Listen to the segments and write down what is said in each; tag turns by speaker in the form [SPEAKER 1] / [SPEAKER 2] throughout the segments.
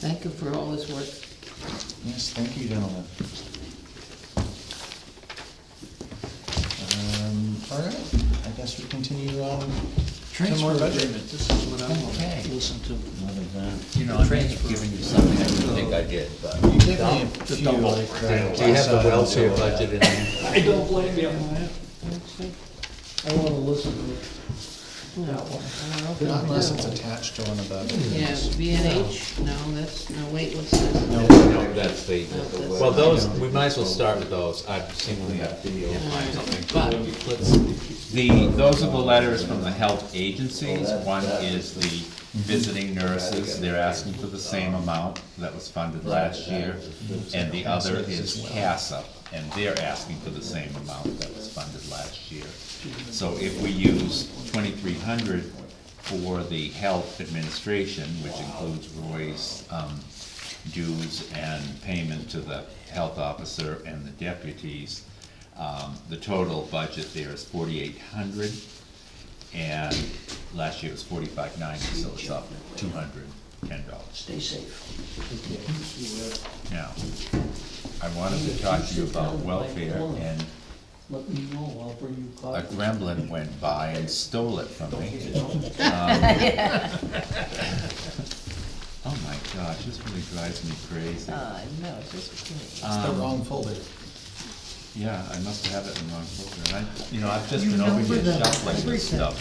[SPEAKER 1] Thank him for all his work.
[SPEAKER 2] Yes, thank you, gentlemen. Um, all right, I guess we continue on.
[SPEAKER 3] Transfer
[SPEAKER 2] budget.
[SPEAKER 3] agreement, this is what I want
[SPEAKER 2] Okay.
[SPEAKER 3] to listen to.
[SPEAKER 2] What is that?
[SPEAKER 3] You know, I mean,
[SPEAKER 4] Trey's giving you something I didn't think I did, but.
[SPEAKER 2] You give me a
[SPEAKER 3] The
[SPEAKER 2] few
[SPEAKER 3] double.
[SPEAKER 2] like uh, that.
[SPEAKER 4] Do you have the welfare budget in there?
[SPEAKER 3] I don't blame you.
[SPEAKER 1] I wanna listen to that one.
[SPEAKER 2] Not unless it's attached to one of the.
[SPEAKER 1] Yeah, B and H, no, that's, no, wait, what's this?
[SPEAKER 4] No, that's the, well, those, we might as well start with those, I've seen the video, find something. But, let's,
[SPEAKER 5] The, those are the letters from the health agencies.
[SPEAKER 4] Oh,
[SPEAKER 5] One is the visiting
[SPEAKER 4] Mm-hmm.
[SPEAKER 5] nurses, they're asking for the same amount that was funded last year. And the other is CASA, and they're asking for the same amount that was funded last year. So if we use twenty-three hundred for the health administration, which includes Roy's, um, dues and payment to the health officer and the deputies, um, the total budget there is forty-eight hundred, and last year it was forty-five ninety, so it's up two hundred ten dollars.
[SPEAKER 1] Stay safe.
[SPEAKER 5] Now, I wanted to talk to you about welfare, and
[SPEAKER 3] Let me know, I'll bring you
[SPEAKER 5] a
[SPEAKER 3] coffee.
[SPEAKER 5] gremlin went by and stole it from me. Oh my gosh, this really drives me crazy.
[SPEAKER 1] Ah, no, it's just.
[SPEAKER 2] It's Uh, the wrong folder.
[SPEAKER 5] Yeah, I must have it in the wrong folder, and I, you know, I've just been over here shuffling this stuff.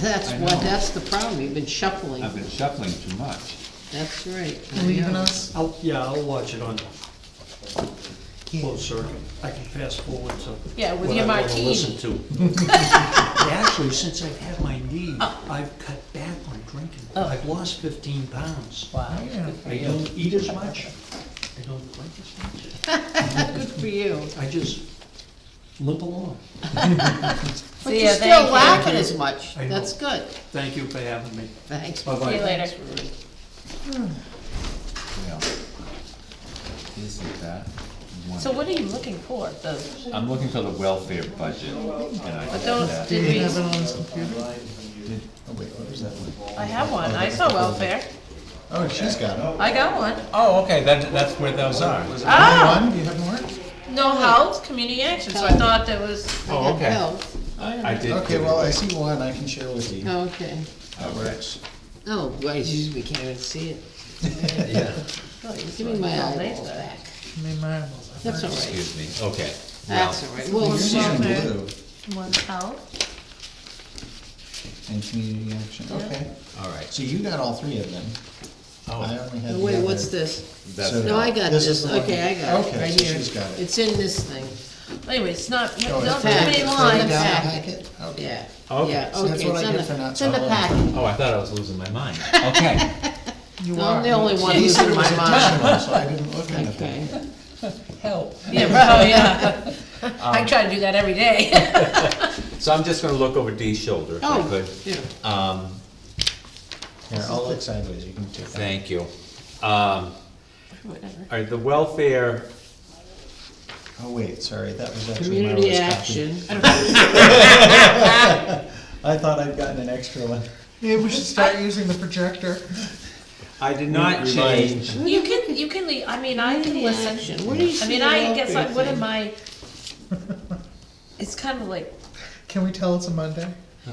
[SPEAKER 1] That's
[SPEAKER 5] I
[SPEAKER 1] what,
[SPEAKER 5] know.
[SPEAKER 1] that's the problem, you've been shuffling,
[SPEAKER 5] I've been shuffling too much.
[SPEAKER 1] that's right.
[SPEAKER 2] Leaving us?
[SPEAKER 3] I'll, yeah, I'll watch it on
[SPEAKER 1] Yeah.
[SPEAKER 3] closed circuit. I can fast forward to.
[SPEAKER 6] Yeah, with
[SPEAKER 3] what
[SPEAKER 6] your
[SPEAKER 3] I wanna
[SPEAKER 6] martini.
[SPEAKER 3] Listen to. Actually, since I've had my knee,
[SPEAKER 6] Oh.
[SPEAKER 3] I've cut back on drinking. I've lost fifteen pounds.
[SPEAKER 2] Oh,
[SPEAKER 6] Wow,
[SPEAKER 3] I don't eat as much. I don't drink as much.
[SPEAKER 1] Good for you.
[SPEAKER 3] I just limp along.
[SPEAKER 1] But
[SPEAKER 6] See
[SPEAKER 1] you're
[SPEAKER 6] ya, thank
[SPEAKER 1] still
[SPEAKER 6] you.
[SPEAKER 1] laughing as much,
[SPEAKER 3] I know.
[SPEAKER 1] that's good,
[SPEAKER 3] Thank you for having me.
[SPEAKER 1] thanks.
[SPEAKER 3] Bye-bye.
[SPEAKER 6] see you later.
[SPEAKER 5] Well, Isn't that
[SPEAKER 6] So
[SPEAKER 5] wonderful?
[SPEAKER 6] what are you looking for, the,
[SPEAKER 5] I'm looking for the welfare budget, and I don't
[SPEAKER 6] but those,
[SPEAKER 5] have that.
[SPEAKER 2] Did you
[SPEAKER 6] did
[SPEAKER 2] have it
[SPEAKER 6] we,
[SPEAKER 2] on his computer? Oh, wait, what was that one?
[SPEAKER 6] I have one, I saw welfare,
[SPEAKER 2] Oh, she's got it.
[SPEAKER 6] I got one.
[SPEAKER 4] oh, okay, that, that's where those are.
[SPEAKER 1] Oh!
[SPEAKER 6] Ah,
[SPEAKER 2] One, you have more?
[SPEAKER 6] no health, community action, so I thought that was,
[SPEAKER 1] I
[SPEAKER 4] Oh,
[SPEAKER 1] got
[SPEAKER 4] okay.
[SPEAKER 1] health.
[SPEAKER 4] I did.
[SPEAKER 2] Oh, Okay, well, I see one I can share with you.
[SPEAKER 1] Okay,
[SPEAKER 2] That works.
[SPEAKER 1] oh, boy, geez, we can't even see it. Oh, Give me my eyeballs back, that's all right,
[SPEAKER 4] Excuse me, okay.
[SPEAKER 1] that's all right, we'll
[SPEAKER 2] Yours is in
[SPEAKER 1] see.
[SPEAKER 2] blue
[SPEAKER 6] one health,
[SPEAKER 2] and community action, okay.
[SPEAKER 4] All right.
[SPEAKER 2] So you got all three of them.
[SPEAKER 4] Oh.
[SPEAKER 2] I only had the
[SPEAKER 1] Wait, what's
[SPEAKER 2] other-
[SPEAKER 1] this?
[SPEAKER 4] That's,
[SPEAKER 2] So-
[SPEAKER 1] No, I got
[SPEAKER 2] This is
[SPEAKER 1] this,
[SPEAKER 2] the one-
[SPEAKER 1] okay, I got it,
[SPEAKER 2] okay,
[SPEAKER 1] right
[SPEAKER 2] so
[SPEAKER 1] here.
[SPEAKER 2] she's got it.
[SPEAKER 1] It's in this thing,
[SPEAKER 6] anyway, it's not,
[SPEAKER 2] Oh,
[SPEAKER 6] not
[SPEAKER 2] it's
[SPEAKER 6] too
[SPEAKER 1] packed. It's
[SPEAKER 6] many
[SPEAKER 2] Further down the
[SPEAKER 6] lines.
[SPEAKER 2] packet? Okay.
[SPEAKER 1] yeah,
[SPEAKER 4] Okay,
[SPEAKER 1] yeah,
[SPEAKER 2] so that's
[SPEAKER 1] okay,
[SPEAKER 2] what I
[SPEAKER 1] it's in
[SPEAKER 2] get for
[SPEAKER 1] the,
[SPEAKER 2] not
[SPEAKER 1] it's in the
[SPEAKER 2] following.
[SPEAKER 1] packet.
[SPEAKER 4] oh, I thought I was losing my mind.
[SPEAKER 5] Okay,
[SPEAKER 1] I'm the only one who's
[SPEAKER 2] These are
[SPEAKER 1] in my
[SPEAKER 2] my
[SPEAKER 1] mind.
[SPEAKER 2] additional, so I didn't look at them.
[SPEAKER 1] Okay,
[SPEAKER 6] Yeah, bro, Oh, yeah. I try to do that every day.
[SPEAKER 4] So I'm just gonna look over Dee's shoulder, if I
[SPEAKER 1] oh,
[SPEAKER 4] could.
[SPEAKER 1] yeah,
[SPEAKER 4] Um,
[SPEAKER 2] Here, I'll look sideways, you can take that.
[SPEAKER 4] thank you. Um,
[SPEAKER 6] Whatever.
[SPEAKER 4] all right, the welfare,
[SPEAKER 2] Oh, wait, sorry, that was actually my
[SPEAKER 1] community
[SPEAKER 2] last copy.
[SPEAKER 1] action,
[SPEAKER 2] I thought I'd gotten an extra one.
[SPEAKER 3] Maybe we should start using the projector.
[SPEAKER 4] I did not change,
[SPEAKER 6] You can, you can leave, I mean, I can listen.
[SPEAKER 1] section, where do you
[SPEAKER 6] I
[SPEAKER 1] see
[SPEAKER 6] mean,
[SPEAKER 1] the
[SPEAKER 6] I guess,
[SPEAKER 1] welfare
[SPEAKER 6] I- what
[SPEAKER 1] thing?
[SPEAKER 6] am I? It's kind of like,
[SPEAKER 2] Can we tell it's a Monday?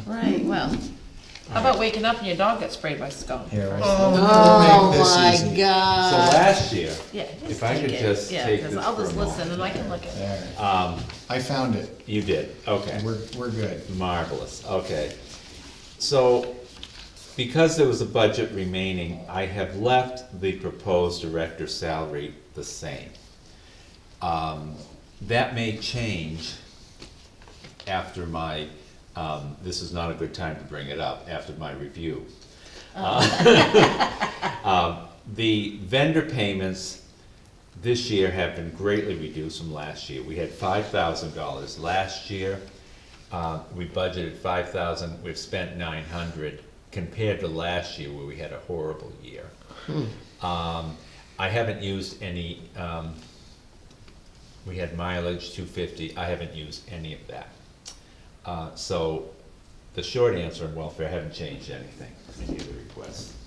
[SPEAKER 1] Right, well,
[SPEAKER 6] how about waking up and your dog got sprayed by skunk?
[SPEAKER 2] Here, right.
[SPEAKER 1] oh
[SPEAKER 2] We'll make this
[SPEAKER 1] my
[SPEAKER 2] easy.
[SPEAKER 4] so
[SPEAKER 1] god,
[SPEAKER 4] last year,
[SPEAKER 6] Yeah.
[SPEAKER 4] If I
[SPEAKER 6] take
[SPEAKER 4] could
[SPEAKER 6] it.
[SPEAKER 4] just
[SPEAKER 6] Yeah,
[SPEAKER 4] take
[SPEAKER 6] 'cause
[SPEAKER 4] this
[SPEAKER 6] I'll
[SPEAKER 4] for a
[SPEAKER 6] just
[SPEAKER 4] moment.
[SPEAKER 6] listen and I can look at it.
[SPEAKER 2] There,
[SPEAKER 4] um,
[SPEAKER 2] I found it,
[SPEAKER 4] you did, okay.
[SPEAKER 2] we're, we're good.
[SPEAKER 4] Marvelous, okay. So, because there was a budget remaining, I have left the proposed director's salary the same. Um, That may change after my, um, this is not a good time to bring it up, after my review. Um, The vendor payments this year have been greatly reduced from last year. We had five thousand dollars last year. Uh, we budgeted five thousand, we've spent nine hundred compared to last year where we had a horrible year. Um, I haven't used any, um, we had mileage two fifty, I haven't used any of that. Uh, so the short answer in welfare, I haven't changed anything in either request.